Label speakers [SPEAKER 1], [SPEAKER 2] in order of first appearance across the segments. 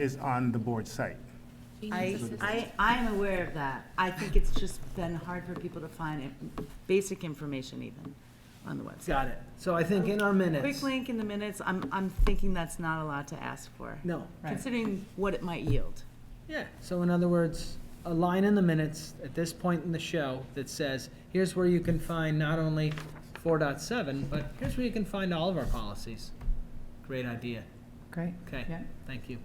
[SPEAKER 1] is on the board site.
[SPEAKER 2] I, I, I'm aware of that. I think it's just been hard for people to find it- basic information even on the website.
[SPEAKER 3] Got it. So I think in our minutes.
[SPEAKER 2] Quick link in the minutes, I'm, I'm thinking that's not a lot to ask for,
[SPEAKER 3] No.
[SPEAKER 2] considering what it might yield.
[SPEAKER 3] Yeah. So in other words, a line in the minutes at this point in the show that says, here's where you can find not only 4.7, but here's where you can find all of our policies. Great idea.
[SPEAKER 4] Great.
[SPEAKER 3] Okay.
[SPEAKER 4] Yeah.
[SPEAKER 3] Thank you.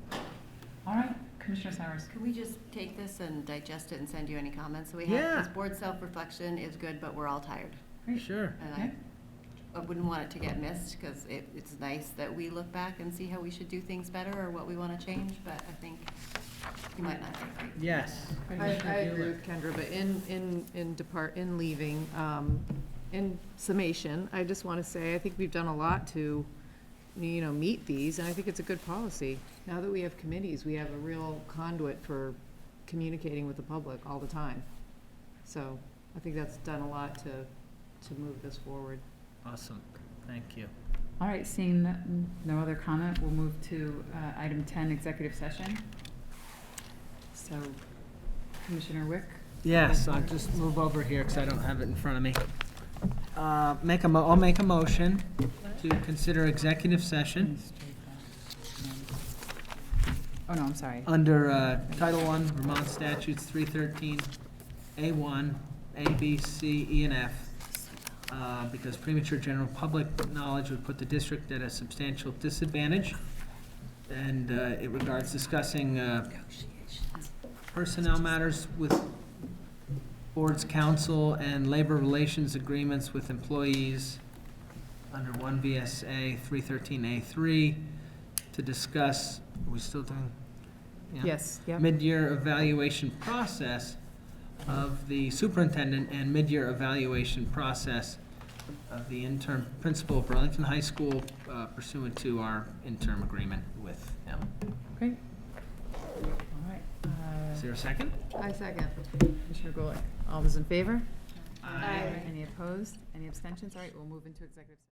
[SPEAKER 4] All right, Commissioner Cyrus.
[SPEAKER 5] Could we just take this and digest it and send you any comments that we have?
[SPEAKER 3] Yeah.
[SPEAKER 5] Because board self-reflection is good, but we're all tired.
[SPEAKER 4] Great.
[SPEAKER 3] Sure.
[SPEAKER 5] And I, I wouldn't want it to get missed, because it, it's nice that we look back and see how we should do things better or what we want to change, but I think you might not agree.
[SPEAKER 3] Yes.
[SPEAKER 6] I,
[SPEAKER 3] Commissioner
[SPEAKER 6] I agree
[SPEAKER 3] Bueller.
[SPEAKER 6] with Kendra, but in, in, in depart, in leaving, um, in summation, I just want to say, I think we've done a lot to, you know, meet these, and I think it's a good policy. Now that we have committees, we have a real conduit for communicating with the public all the time. So I think that's done a lot to, to move this forward.
[SPEAKER 3] Awesome. Thank you.
[SPEAKER 4] All right, seeing that- no other comment, we'll move to uh, item 10, executive session. So Commissioner Wick,
[SPEAKER 3] Yes, I'll just move over here because I don't have it in front of me. Uh, Make a, mo- I'll make a motion to consider executive session
[SPEAKER 4] oh no, I'm sorry.
[SPEAKER 3] under uh, Title I Vermont Statutes 313, A1, A, B, C, E, and F, uh, because premature general public knowledge would put the district at a substantial disadvantage, and uh, it regards discussing uh, personnel matters with boards, council, and labor relations agreements with employees under 1 VSA 313A3 to discuss, are we still doing? yeah?
[SPEAKER 6] Yes, yeah.
[SPEAKER 3] mid-year evaluation process of the superintendent and mid-year evaluation process of the interim principal of Burlington High School uh, pursuant to our interim agreement with him.
[SPEAKER 4] Great. All right, uh,
[SPEAKER 3] Is there a second?
[SPEAKER 6] I second.
[SPEAKER 4] Commissioner Golick, all those in favor? Aye. Any opposed? Any abstentions? All right, we'll move into executive. session.